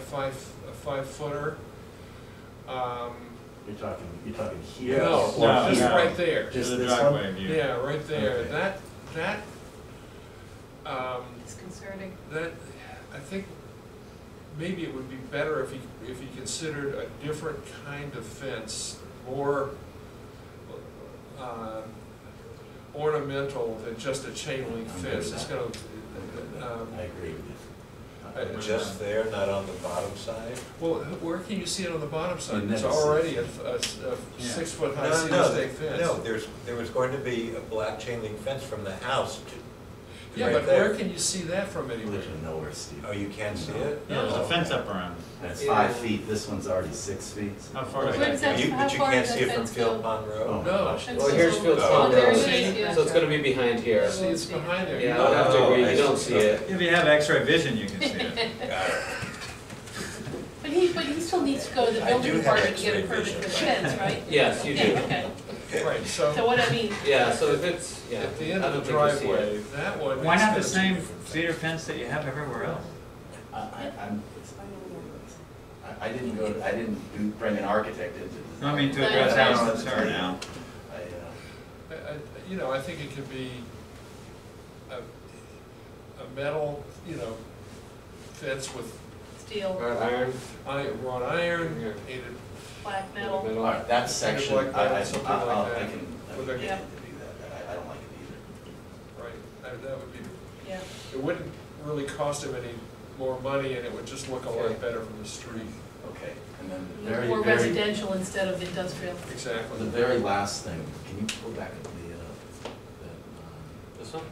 five, a five footer. Um, You're talking, you're talking here. no, No, just no. right there. Just To the this one? driveway view. Yeah, right there, Okay. that, that, um, It's concerning. that, I think maybe it would be better if he, if he considered a different kind of fence, more, uh, ornamental than just a chain link I'm good fence, with it's that. gonna, um, I agree with I- you. Just there, not on the bottom side? well, where can you see it on the bottom side? You It's never see it. already a, a, a Yeah. six foot high No, cedar no, stake th- fence. no, there's, there was going to be a black chain link fence from the house to, Yeah, right but where there. can you see that from anywhere? Literally nowhere, Steve. Oh, you can't see it? Yeah, there's a fence up around it. That's five feet, this one's already six feet. How far is Where that? does that- You- how But you far can't does see it that from fence Phil go? Pond Oh, Road? No. gosh. Fence Well, is here's over- Phil's Oh, pond there now. it is, yeah. So it's gonna be behind here. See, it's behind there. Yeah, I would have to agree, Oh, you don't see it. If you have x-ray vision, you can see it. Got it. But he, but he still needs to go to the I do building have department to get X-ray a permit for the vision, right? fence, right? Yes, you Okay, do. okay. Right, so. So what I mean, Yeah, so if it's, yeah. At the end I of the don't think you see driveway, that one. Why is not the gonna be- same cedar fence that you have everywhere else? I, I, I'm, I, I didn't go, I didn't do, bring an architect into this. I mean, to No, address no, Alan's no. concern now. I, uh, I- I- You know, I think it could be a, a metal, you know, fence with it. steel, Wrought iron, i- wrought iron, Yeah. painted, black metal, All metal. right, uh, that section, I, Something like I, that, I something I'll- like I'll- that. I can, I With can a- get Yeah. him to do that, I, I don't like it either. right, that that would be, yeah. it wouldn't really cost him any more money and it would just look a Okay. lot better from the street. Okay, and then the very, More very- residential instead of industrial. The Exactly. very last thing, can you pull back up the, uh, that, This one? um,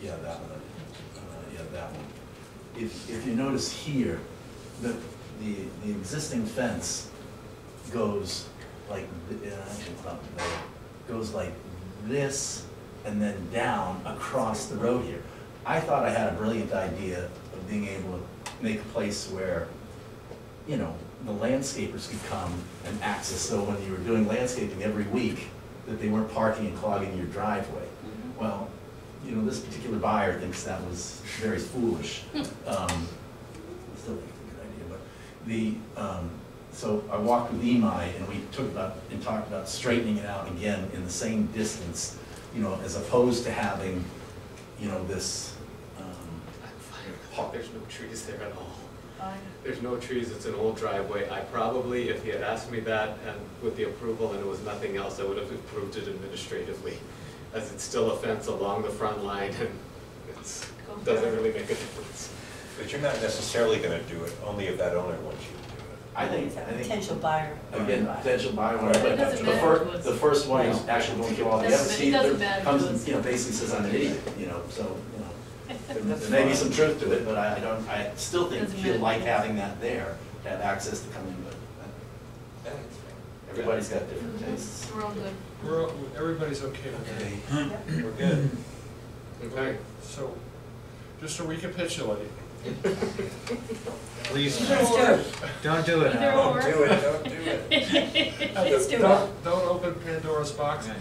yeah, that one, uh, yeah, that one. If, if you notice here, the, the, the existing fence goes like, th- uh, actually, it's not there, goes like this and then down across the road here. I thought I had a brilliant idea of being able to make a place where you know, the landscapers could come and access, so when you were doing landscaping every week, that they weren't parking and clogging your driveway. Well, you know, this particular buyer thinks that was very foolish. Um, Still think it's a good idea, but the, um, so I walked with Imai and we took about, and talked about straightening it out again in the same distance, you know, as opposed to having, you know, this, um, Oh, There's no trees there at all. Fine. There's no trees, it's an old driveway. I probably, if he had asked me that and with the approval and it was nothing else, I would have approved it administratively. As it's still a fence along the front line and it's, Go for doesn't it. really make a difference. But you're not necessarily gonna do it, only if that owner wants you to do it. I think, It's a I think. Potential buyer. Again, potential buyer, whatever, It but doesn't the matter to first, us. the first one is actually going through all the Doesn't- others. it See, doesn't there matter to comes, us. you know, basically says I'm an idiot, you know, so, you know. there- There may be some truth to it, but I I don't, I still think, Doesn't feel matter. like having that there, to have access to come in, but uh, Yeah, it's fine. everybody's got different tastes. We're all good. We're, all- everybody's okay with that. We're good. Okay. So, just to recapitulate, Please, Let's do it. don't do it, Either Alan. or. Don't do it, don't do it. Let's do it. don't, don't open Pandora's box. Okay.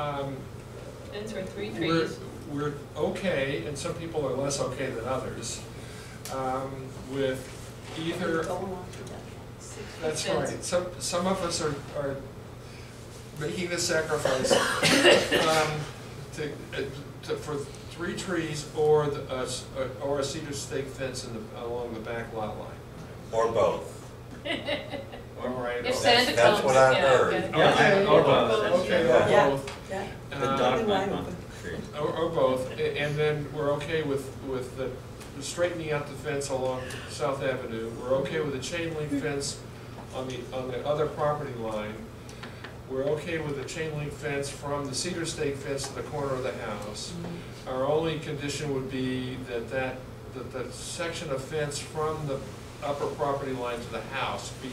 Um, Fence or three we're, trees. we're okay, and some people are less okay than others, um, with either, Go along with that. six foot that's fence. right, some, some of us are, are making the sacrifice, um, to, uh, to, for three trees or the, uh, s- or a cedar stake fence in the, along the back lot line. Or both. All right. If okay. Santa that's comes, what I yeah, heard. okay. Yeah, I- or both, that's Okay, true. or Yeah. both, Yeah. The Uh, dog might Wide bump open. the tree. Or, or both, a- and then we're okay with, with the straightening out the fence along South Avenue. We're okay with the chain link fence on the, on the other property line. We're okay with the chain link fence from the cedar stake fence to the corner of the house. Our only condition would be that that, that the section of fence from the upper property line to the house be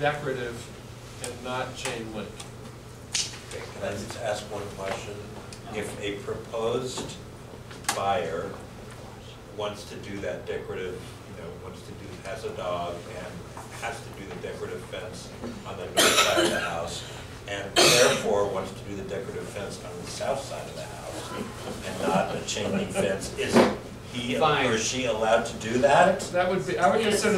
decorative and not chain link. Okay, Can I just ask one question? If a proposed buyer wants to do that decorative, you know, wants to do, has a dog and has to do the decorative fence on the north side of the house, and therefore wants to do the decorative fence on the south side of the house, and not a chain link fence, is he Fine. or she allowed to do that? That would be, I would Yes. consider